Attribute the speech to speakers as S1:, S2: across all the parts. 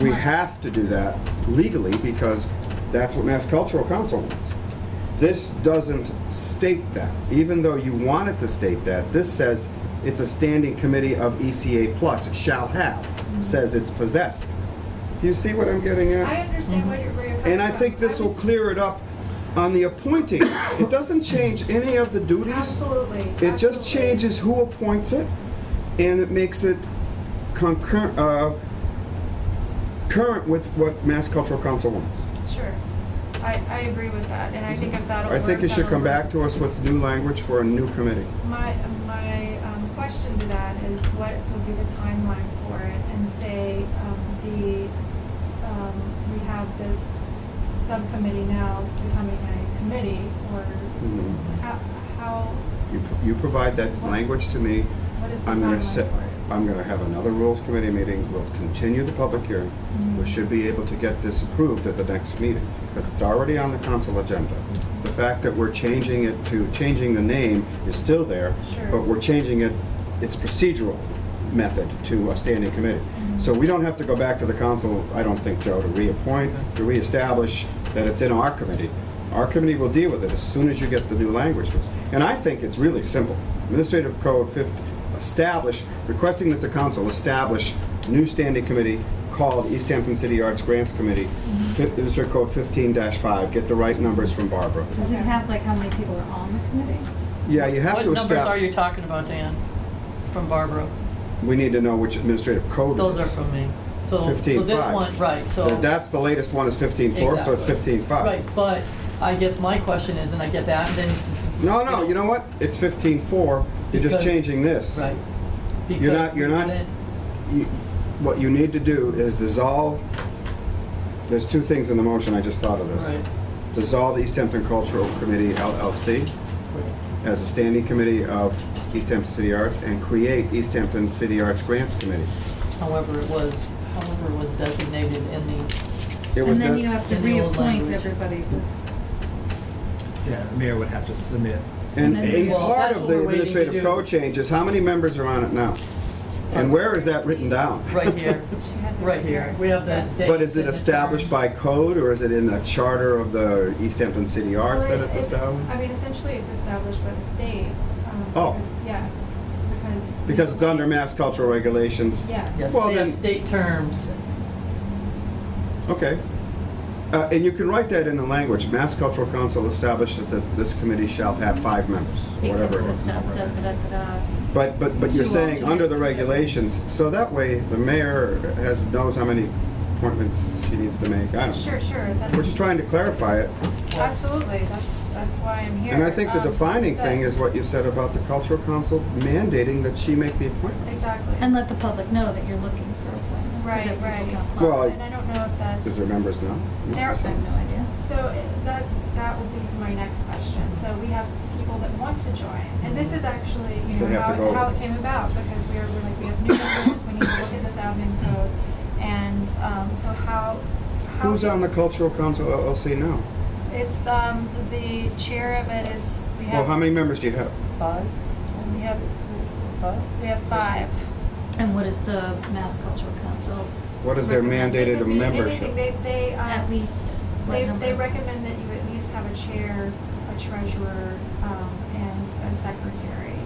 S1: We have to do that legally because that's what Mass Cultural Council wants. This doesn't state that, even though you want it to state that. This says it's a standing committee of ECA plus, shall have, says it's possessed. Do you see what I'm getting at?
S2: I understand what you're, where you're coming from.
S1: And I think this will
S2: was-
S1: clear it up on the appointing. It doesn't change any of the duties.
S2: Absolutely.
S1: It just
S2: absolutely.
S1: changes who appoints it, and it makes it concurrent, uh, current with what Mass Cultural Council wants.
S2: Sure. I, I agree with that, and I think if that'll
S1: I think
S2: work,
S1: you should come
S2: that'll
S1: back to us with new language for a new committee.
S2: work. My, my um, question to that is what would be the timeline for it? And say, um, the, um, we have this subcommittee now becoming a committee, or
S1: Mhm.
S2: how, how,
S1: You you provide that language to me,
S2: what is the
S1: I'm gonna
S2: timeline
S1: set,
S2: for it?
S1: I'm gonna have another Rules Committee meeting, we'll continue the public hearing.
S2: Mm-hmm.
S1: We should be able to get this approved at the next meeting, because it's already on the council agenda. The fact that we're changing it to, changing the name is still there,
S2: Sure.
S1: but we're changing it, its procedural method to a standing committee.
S3: Mm-hmm.
S1: So we don't have to go back to the council, I don't think, Joe, to reappoint, to reestablish that it's in our committee. Our committee will deal with it as soon as you get the new language to us. And I think it's really simple. Administrative Code 50, establish, requesting that the council establish new standing committee called East Hampton City Arts Grants Committee,
S3: Mm-hmm.
S1: Fif- Administrative Code 15-5, get the right numbers from Barbara.
S4: Does it have like how many people are on the committee?
S1: Yeah, you have
S3: What
S1: to
S3: numbers are
S1: establish,
S3: you talking about, Dan? From Barbara?
S1: we need to know which administrative code it is.
S3: Those are from me. So, so this
S1: 15.5.
S3: one, right, so.
S1: Th- That's the latest one is fifteen four, so it's
S3: Exactly.
S1: fifteen five.
S3: Right, but I guess my question is, and I get that, and then,
S1: No, no, you know what? It's fifteen four, you're just
S3: Because-
S1: changing this.
S3: right.
S1: You're not-
S3: because
S1: you're not-
S3: then-
S1: You- What you need to do is dissolve, there's two things in the motion, I just thought of this.
S3: Right.
S1: Dissolve the East Hampton Cultural Committee LLC as a standing committee of East Hampton City Arts and create East Hampton City Arts Grants Committee.
S3: However, it was, however, it was designated in the,
S1: It was
S4: And then
S1: done-
S4: you have to
S3: In the old
S4: reappoint
S3: language.
S4: everybody who's.
S5: Yeah, the mayor would have to submit.
S4: And
S1: And
S4: then
S1: a
S4: we- Well,
S1: part
S3: that's
S1: of
S3: what
S1: the
S3: we're waiting to
S1: administrative
S3: do.
S1: code change is how many members are on it now? And where is that written down?
S3: right here,
S4: She has it
S3: right here. We have that.
S1: But is it established by code, or is it in the charter of the East Hampton City Arts
S2: Well,
S1: that it's established?
S2: I mean, essentially, it's established by the state. um,
S1: Oh.
S2: because- Yes, because.
S1: Because it's under mass cultural regulations?
S2: Yes.
S3: Yes,
S1: Well,
S3: they have
S1: then-
S3: state terms.
S1: Okay. Uh, And you can write that in the language, Mass Cultural Council established that the- this committee shall have five members,
S4: Be
S1: whatever it is.
S4: consistent, da, da, da, da.
S1: But, but, but you're
S4: Two
S1: saying under the
S4: alternates.
S1: regulations, so that way the mayor has, knows how many appointments she needs to make. I don't know.
S2: Sure, sure,
S1: We're just
S2: that's,
S1: trying to clarify it.
S2: absolutely, that's, that's why I'm here.
S1: And I think the
S2: Um,
S1: defining
S2: but-
S1: thing is what you said about the cultural council mandating that she make the appointments.
S2: Exactly.
S4: And let the public know that you're looking for appointments. so
S2: Right,
S4: that people
S2: right.
S4: can apply.
S1: Well,
S2: And I don't know if that,
S1: Is there members now? No,
S2: There-
S1: that's
S4: I
S1: not-
S4: have no idea.
S2: so it- that, that will lead to my next question. So we have people that want to join, and this is actually, you
S1: They
S2: know,
S1: have
S2: how,
S1: to go.
S2: it- how it came about, because we are, we're like, we have new members, we need to look at this admin code. And, um, so how, how.
S1: Who's on the cultural council LLC now?
S2: It's, um, the chair of it is, we
S1: Well,
S2: have.
S1: how many members do you have?
S3: Five,
S2: We have,
S3: five?
S2: we have five.
S4: And what is the Mass Cultural Council,
S1: What is their
S4: Recommend-
S2: They
S1: mandated
S2: could be anything.
S1: membership?
S2: They, they, um.
S4: at least? what
S2: They, they
S4: number?
S2: recommend that you at least have a chair, a treasurer, um, and a secretary,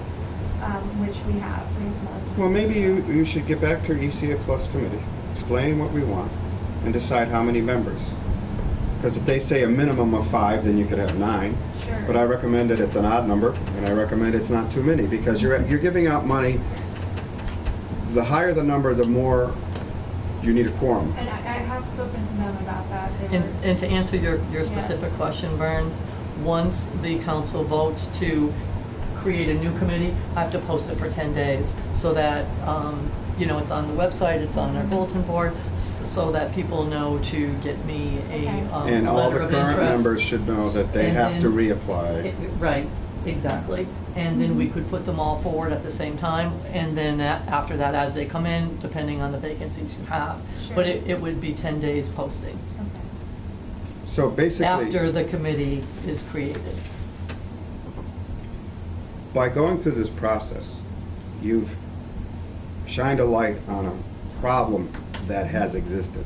S2: um, which we have, we have multiple.
S1: Well, maybe you, you should get back to your ECA Plus committee, explain what we want, and decide how many members. Because if they say a minimum of five, then you could have nine.
S2: Sure.
S1: But I recommend that it's an odd number, and I recommend it's not too many, because you're, you're giving out money. The higher the number, the more you need a quorum.
S2: And I, I have spoken to them about that, they
S3: And,
S2: were,
S3: and to answer your, your
S2: Yes.
S3: specific question, Burns, once the council votes to create a new committee, I have to post it for 10 days so that, um, you know, it's on the website, it's on our bulletin board, s- so that people know to get me a
S2: Okay.
S3: um,
S1: And all the
S3: letter of
S1: current members
S3: interest.
S1: should know that they
S3: And
S1: have to
S3: then-
S1: reapply.
S3: It- Right, exactly. And then
S2: Mm-hmm.
S3: we could put them all forward at the same time, and then a- after that, as they come in, depending on the vacancies you have.
S2: Sure.
S3: But it, it would be 10 days posting
S2: okay,
S1: So
S3: after
S1: basically,
S3: the committee is created.
S1: by going through this process, you've shined a light on a problem that has existed.